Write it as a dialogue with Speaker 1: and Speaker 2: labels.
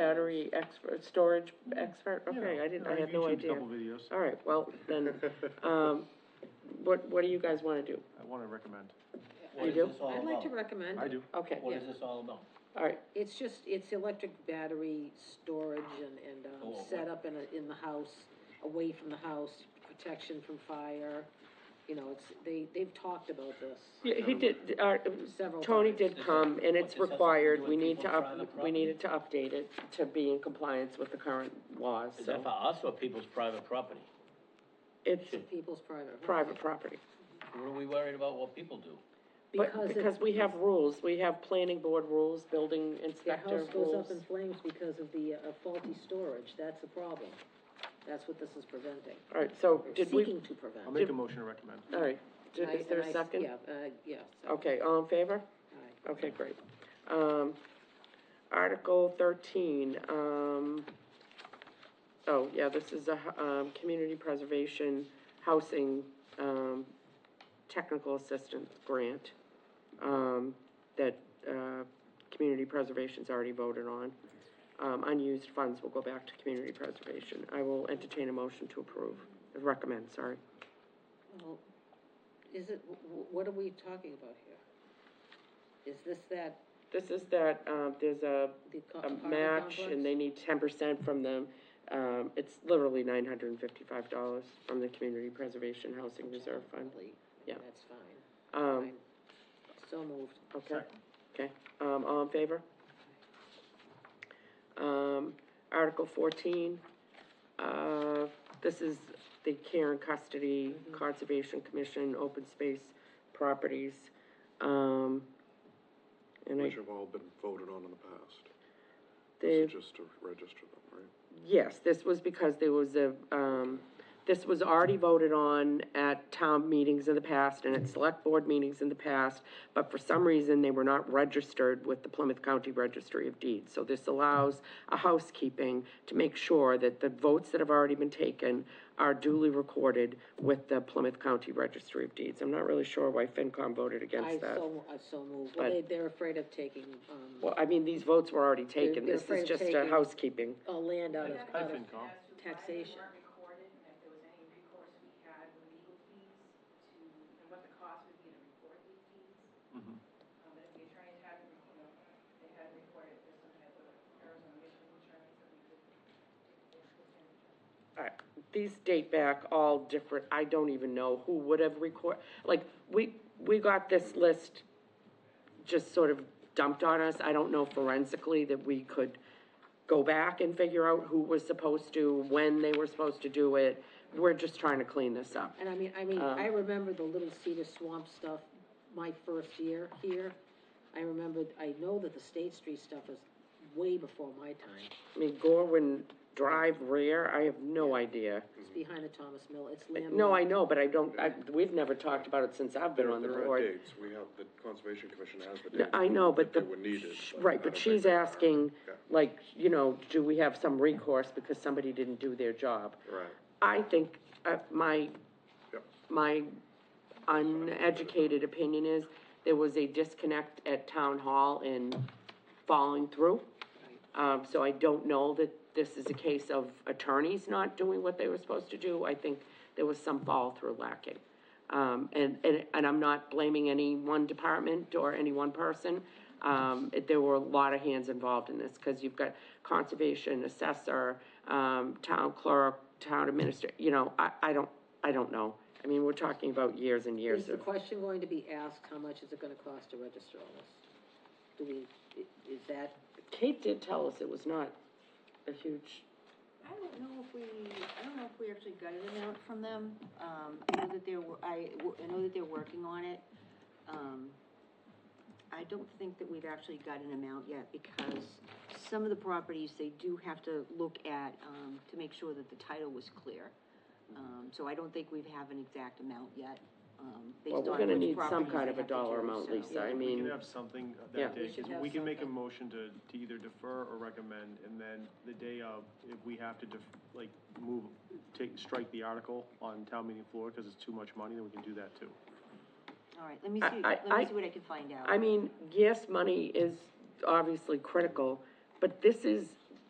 Speaker 1: Battery expert, storage expert, okay,
Speaker 2: Yeah,
Speaker 1: I didn't,
Speaker 2: yeah,
Speaker 1: I had no
Speaker 2: YouTube's
Speaker 1: idea.
Speaker 2: Double videos,
Speaker 1: All right, well, then, um, what, what do you guys wanna do?
Speaker 2: I wanna recommend,
Speaker 3: What
Speaker 1: You
Speaker 3: is
Speaker 1: do?
Speaker 3: this all
Speaker 4: I'd like to
Speaker 3: about?
Speaker 4: recommend.
Speaker 2: I do.
Speaker 1: Okay,
Speaker 3: What
Speaker 4: yeah.
Speaker 3: is this all about?
Speaker 1: all right,
Speaker 4: It's just, it's electric battery storage and, and, um,
Speaker 3: Oh,
Speaker 4: set up in a, in the house, away from the house, protection from fire. You know, it's, they, they've talked about this
Speaker 1: Yeah, he did, our,
Speaker 4: several times.
Speaker 1: Tony did
Speaker 3: This is-
Speaker 1: come, and
Speaker 3: this
Speaker 1: it's
Speaker 3: has something to
Speaker 1: required,
Speaker 3: do
Speaker 1: we
Speaker 3: with
Speaker 1: need
Speaker 3: people
Speaker 1: to
Speaker 3: trying to
Speaker 1: up, we
Speaker 3: profit?
Speaker 1: needed to update it to be in compliance with the current laws,
Speaker 3: Is that for
Speaker 1: so.
Speaker 3: us or people's private property?
Speaker 1: It's
Speaker 4: People's private.
Speaker 1: private property,
Speaker 3: What are we worried about what people do?
Speaker 1: but,
Speaker 4: Because it-
Speaker 1: because we have rules, we have planning board rules, building
Speaker 4: Their
Speaker 1: inspector
Speaker 4: house goes
Speaker 1: rules.
Speaker 4: up in flames because of the uh, faulty storage, that's the problem. That's what this is preventing,
Speaker 1: All right, so
Speaker 4: or
Speaker 1: did we,
Speaker 4: seeking to prevent.
Speaker 2: I'll make a motion to recommend.
Speaker 1: all right, did-
Speaker 4: And I-
Speaker 1: is there
Speaker 4: and
Speaker 1: a
Speaker 4: I-
Speaker 1: second?
Speaker 4: Yeah, uh, yeah, so,
Speaker 1: Okay, all in favor?
Speaker 4: all right.
Speaker 1: Okay, great. Um, Article thirteen, um, oh, yeah, this is a, hu- um, community preservation housing, um, technical assistance grant, um, that, uh, community preservation's already voted on. Um, unused funds will go back to community preservation. I will entertain a motion to approve, recommend, sorry.
Speaker 4: Well, Is it, wh- wh- what are we talking about here? Is this that,
Speaker 1: This is that, um, there's a
Speaker 4: the
Speaker 1: a
Speaker 4: co- apartment complex?
Speaker 1: match, and they need ten percent from them. Um, it's literally nine hundred and fifty-five dollars from the Community Preservation Housing Reserve Fund.
Speaker 4: Probably,
Speaker 1: Yeah.
Speaker 4: That's fine,
Speaker 1: Um,
Speaker 4: fine. So moved.
Speaker 1: okay, okay, um, all in favor? Um, Article fourteen, uh, this is the Care and Custody Conservation Commission, Open Space Properties, um, and I,
Speaker 5: Which have all been voted on in the past.
Speaker 1: they
Speaker 5: This is just to register them, right?
Speaker 1: Yes, this was because there was a, um, this was already voted on at town meetings in the past and at select board meetings in the past, but for some reason, they were not registered with the Plymouth County Registry of Deeds. So this allows a housekeeping to make sure that the votes that have already been taken are duly recorded with the Plymouth County Registry of Deeds. I'm not really sure why FinCom voted
Speaker 4: I
Speaker 1: against that.
Speaker 4: so, I so moved.
Speaker 1: But-
Speaker 4: Well, they, they're afraid of taking, um,
Speaker 1: Well, I mean, these votes were already taken,
Speaker 4: they're
Speaker 1: this is
Speaker 4: afraid of
Speaker 1: just a
Speaker 4: taking-
Speaker 1: housekeeping.
Speaker 4: uh, land out of,
Speaker 2: Hi,
Speaker 4: out of
Speaker 2: FinCom.
Speaker 4: taxation.
Speaker 6: They weren't recorded, and if there was any recourse we had with legal fees to, and what the cost would be to record these fees.
Speaker 2: Mhm.
Speaker 6: Um, but if the attorneys had, you know, they had recorded, there's some type of Arizona Mission insurance that we could.
Speaker 1: Alright, These date back all different, I don't even know who would have record, like, we, we got this list just sort of dumped on us, I don't know forensically that we could go back and figure out who was supposed to, when they were supposed to do it, we're just trying to clean this up.
Speaker 4: And I mean, I mean,
Speaker 1: Um,
Speaker 4: I remember the Little Cedar Swamp stuff, my first year here. I remember, I know that the State Street stuff was way before my time.
Speaker 1: I mean, Gorwin Drive rear, I have no idea.
Speaker 4: It's behind the Thomas Mill, it's land.
Speaker 1: Mm-hmm. No, I know, but I don't, I, we've never talked about it since I've been
Speaker 5: There-
Speaker 1: on the
Speaker 5: there are
Speaker 1: board.
Speaker 5: dates. we have, the Conservation Commission has the
Speaker 1: No,
Speaker 5: date.
Speaker 1: I know, but the.
Speaker 5: that They were needed.
Speaker 1: sh-
Speaker 5: but
Speaker 1: Right,
Speaker 5: I
Speaker 1: but
Speaker 5: don't
Speaker 1: she's
Speaker 5: think they-
Speaker 1: asking,
Speaker 5: Yeah.
Speaker 1: like, you know, do we have some recourse because somebody didn't do their job?
Speaker 5: Right,
Speaker 1: I think, uh, my,
Speaker 5: yep.
Speaker 1: my uneducated opinion is, there was a disconnect at town hall in following through. Um, so I don't know that this is a case of attorneys not doing what they were supposed to do. I think there was some follow-through lacking. Um, and, and, and I'm not blaming any one department or any one person. Um, it- there were a lot of hands involved in this, because you've got conservation, assessor, um, town clerk, town administrator, you know, I, I don't, I don't know. I mean, we're talking about years and years
Speaker 4: Is
Speaker 1: of.
Speaker 4: the question going to be asked, how much is it gonna cost to register all this? Do we, i- is that,
Speaker 1: Kate did tell us it was not a huge,
Speaker 7: I don't know if we, I don't know if we actually got an amount from them. Um, I know that they're, wo- I, wo- I know that they're working on it. Um, I don't think that we've actually got an amount yet because some of the properties, they do have to look at, um, to make sure that the title was clear. Um, so I don't think we have an exact amount yet, um, based
Speaker 1: well,
Speaker 7: on
Speaker 1: we're gonna
Speaker 7: which
Speaker 1: need some
Speaker 7: properties
Speaker 1: kind
Speaker 7: they
Speaker 1: of a
Speaker 7: have to
Speaker 1: dollar
Speaker 7: do,
Speaker 1: amount,
Speaker 7: so-
Speaker 1: Lisa, I
Speaker 2: We can
Speaker 1: mean,
Speaker 2: have something
Speaker 1: Yeah.
Speaker 2: that day,
Speaker 4: We should
Speaker 2: 'cause
Speaker 4: have
Speaker 2: we can make a
Speaker 4: something.
Speaker 2: motion to, to either defer or recommend, and then the day of, if we have to def, like, move, take, strike the article on town meeting floor, cause it's too much money, then we can do that too.
Speaker 7: All right, let me
Speaker 1: I-
Speaker 7: see,
Speaker 1: I-
Speaker 7: let
Speaker 1: I-
Speaker 7: me see what I can find out.
Speaker 1: I mean, yes, money is obviously critical, but this is